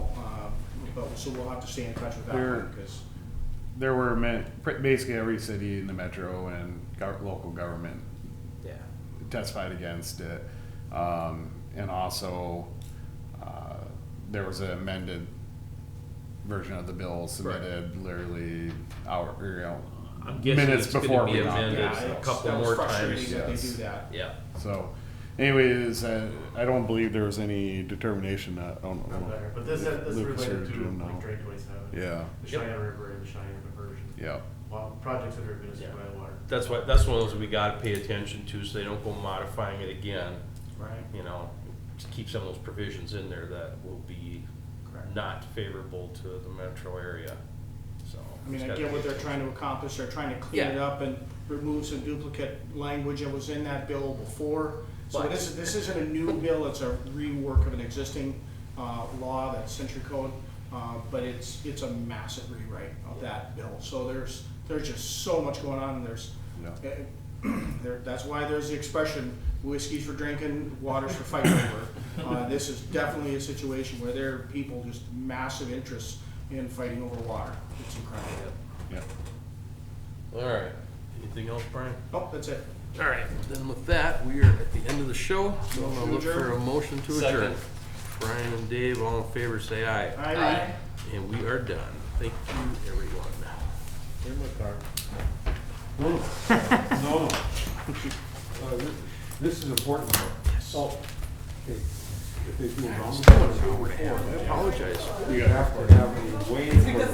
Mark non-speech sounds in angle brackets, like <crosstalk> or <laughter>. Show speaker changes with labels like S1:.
S1: Um, so we'll have to stay in touch with that
S2: We're-
S1: one, because,
S2: There were ma- pr- basically every city in the metro and gov- local government
S1: yeah,
S2: testified against it. Um, and also, uh, there was an amended version of the bill submitted literally hour, or, you know,
S3: I'm guessing
S2: Minutes
S3: it's gonna
S2: before
S3: be
S2: we knock
S3: amended
S2: Yeah,
S1: yeah,
S2: it.
S3: a
S1: it's-
S3: couple
S1: that was
S3: more
S1: frustrating
S3: times.
S1: that they do
S2: yes.
S1: that.
S3: Yeah,
S2: so anyways, uh, I don't believe there was any determination that, I don't
S4: Not there,
S2: know.
S4: But this, this is
S2: Lucas or
S4: related to
S2: Jim, no.
S4: like Drake Waste Island,
S2: Yeah,
S4: the
S3: Yep.
S4: Cheyenne River and the Cheyenne diversion.
S2: yeah,
S4: Well, projects that are administered
S3: Yeah.
S4: by the water.
S3: that's why, that's one of those we gotta pay attention to, so they don't go modifying it again,
S4: Right.
S3: you know? To keep some of those provisions in there that will be
S4: Correct.
S3: not favorable to the metro area, so.
S1: I mean,
S3: it's
S1: I
S3: gotta
S1: get
S3: be
S1: what they're
S3: attention.
S1: trying to accomplish, they're trying to clean it
S3: Yeah.
S1: up and remove some duplicate language that was in that bill before. So
S3: But-
S1: this, is- this isn't a new bill, it's a rework of an existing, uh, law, that century code, uh, but it's, it's a massive rewrite of that bill. So there's, there's just so much going on, and there's,
S2: yeah.
S1: Uh, <clears throat> there, that's why there's the expression, whiskey's for drinking, water's for fighting over. Uh, this is definitely a situation where there are people just massive interests in fighting over water. It's incredible.
S2: yeah.
S3: All right, anything else, Brian?
S1: Oh, that's it.
S3: All right, then with that, we are at the end of the show, so I'm gonna look for a motion to adjourn. Brian and Dave, all in favor, say aye.
S1: All right.
S3: And we are done. Thank you, everyone.
S5: No, no. Uh, thi- This is important. Oh, okay. If they do a roundabout,
S3: I apologize.
S5: you have to have a way for